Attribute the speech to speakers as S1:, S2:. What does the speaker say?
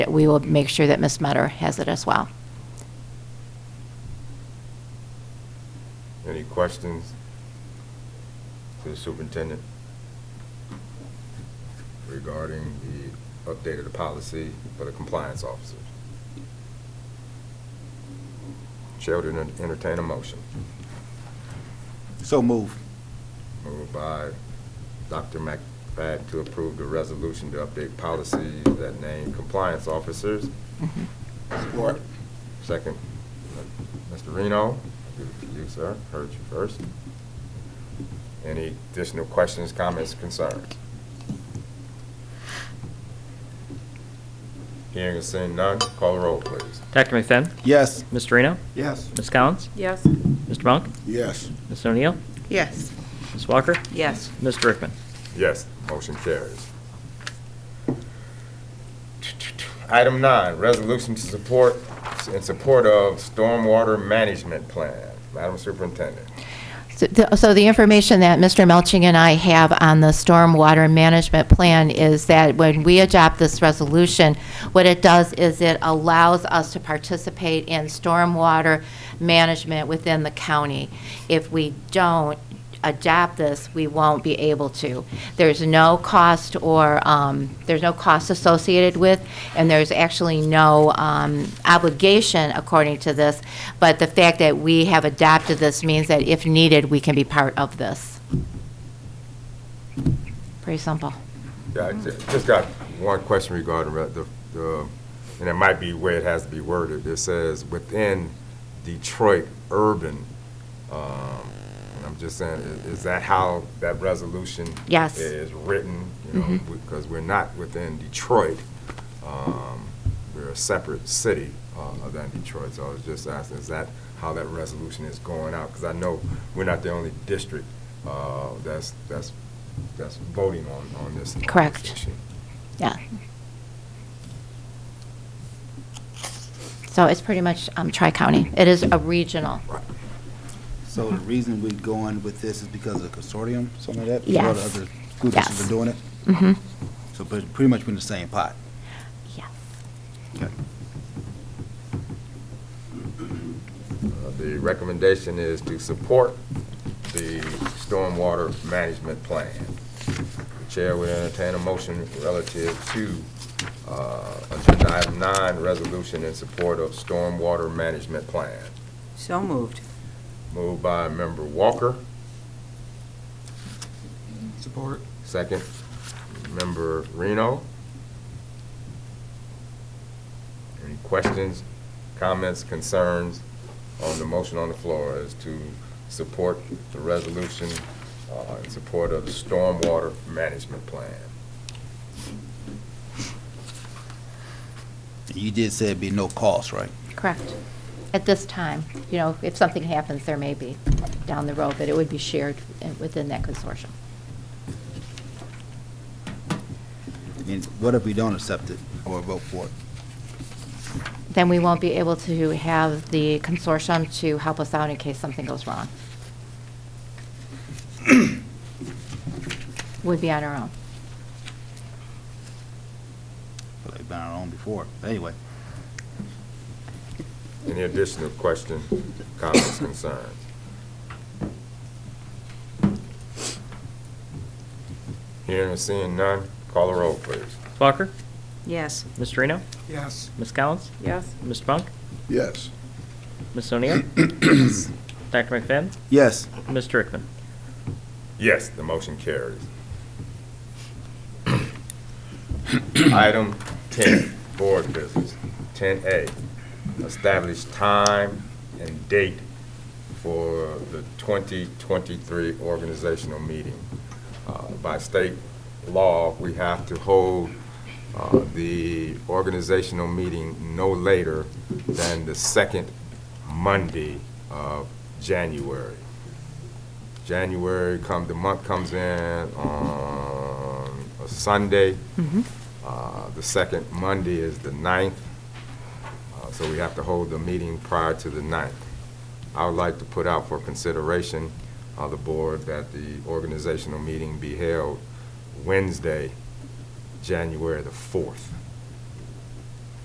S1: We will make sure that Ms. Metter has it as well.
S2: Any questions to the superintendent regarding the update of the policy for the compliance officers? Chair would enter- entertain a motion.
S3: So move.
S2: Moved by Dr. McFadden to approve the resolution to update policies that name compliance officers.
S3: Support.
S2: Second, Mr. Reno, give it to you, sir. Heard you first. Any additional questions, comments, concerns? Hearing and seeing none, call the roll, please.
S4: Dr. McFadden?
S3: Yes.
S4: Ms. Reno?
S3: Yes.
S4: Ms. Collins?
S5: Yes.
S4: Mr. Monk?
S3: Yes.
S4: Ms. O'Neill?
S5: Yes.
S4: Ms. Walker?
S5: Yes.
S4: Mr. Rickman?
S2: Yes, motion carries. Item nine, resolution to support, in support of stormwater management plan. Madam Superintendent.
S1: So the- So the information that Mr. Melching and I have on the stormwater management plan is that when we adopt this resolution, what it does is it allows us to participate in stormwater management within the county. If we don't adopt this, we won't be able to. There's no cost or, um, there's no cost associated with, and there's actually no um, obligation according to this, but the fact that we have adopted this means that if needed, we can be part of this. Pretty simple.
S2: Yeah, I ju- just got one question regarding re- the, the- and it might be where it has to be worded. It says, "Within Detroit urban," um, and I'm just saying, i- is that how that resolution?
S1: Yes.
S2: Is written, you know, because we're not within Detroit. Um, We're a separate city uh, than Detroit, so I was just asking, is that how that resolution is going out? Because I know we're not the only district uh, that's, that's, that's voting on, on this. on this
S1: Correct.
S2: issue.
S1: Yeah. So it's pretty much um, Tri-County. It is a regional.
S2: Right.
S3: So the reason we going with this is because of the consortium, something like that?
S1: Yes.
S3: Or the other groups that have
S1: Yes.
S3: been doing it?
S1: Mm-hmm.
S3: So but pretty much we're in the same pot.
S1: Yes.
S3: Okay.
S2: Uh, The recommendation is to support the stormwater management plan. The Chair would entertain a motion relative to uh, Agenda Item 9, resolution in support of stormwater management plan.
S5: So moved.
S2: Moved by Member Walker,
S3: Support.
S2: second. Member Reno. Any questions, comments, concerns on the motion on the floor as to support the resolution uh, in support of the stormwater management plan?
S3: You did say it'd be no cost, right?
S1: Correct. At this time, you know, if something happens, there may be down the road, but it would be shared uh, within that consortium.
S3: And what if we don't accept it or vote for it?
S1: Then we won't be able to have the consortium to help us out in case something goes wrong. Would be on our own.
S3: But they've been our own before. Anyway,
S2: Any additional questions, comments, concerns? Hearing and seeing none, call the roll, please.
S4: Ms. Walker?
S5: Yes.
S4: Ms. Reno?
S6: Yes.
S4: Ms. Collins?
S5: Yes.
S4: Mr. Monk?
S6: Yes.
S4: Ms. O'Neill? Dr. McFadden?
S3: yes,
S4: Mr. Rickman?
S2: Yes, the motion carries. Item 10, Board Business. 10A, establish time and date for the 2023 organizational meeting. Uh, By state law, we have to hold uh, the organizational meeting no later than the second Monday of January. January come, the month comes in on a Sunday. Uh, The second Monday is the ninth, uh, so we have to hold the meeting prior to the ninth. I would like to put out for consideration of the board that the organizational meeting be held Wednesday, January the fourth.